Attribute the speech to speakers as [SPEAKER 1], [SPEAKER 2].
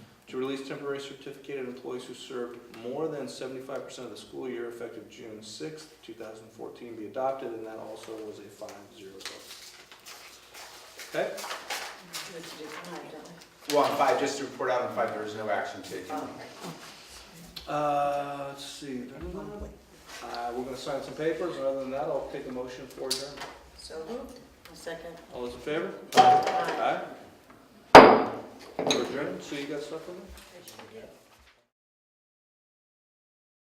[SPEAKER 1] to release temporary certificated employees who served more than seventy-five percent of the school year effective June sixth, two thousand fourteen be adopted, and that also was a five zero vote. Okay,
[SPEAKER 2] Let's do five, don't we?
[SPEAKER 3] Well, on five, just to report out on five, there is no action taken.
[SPEAKER 2] Oh,
[SPEAKER 1] uh, let's see. Uh, we're gonna sign some papers, and other than that, I'll take a motion for adjournment.
[SPEAKER 2] So moved. A second.
[SPEAKER 1] All those in favor?
[SPEAKER 2] Aye.
[SPEAKER 1] Aye. We're adjourned, so you got stuff on there?
[SPEAKER 2] I should get-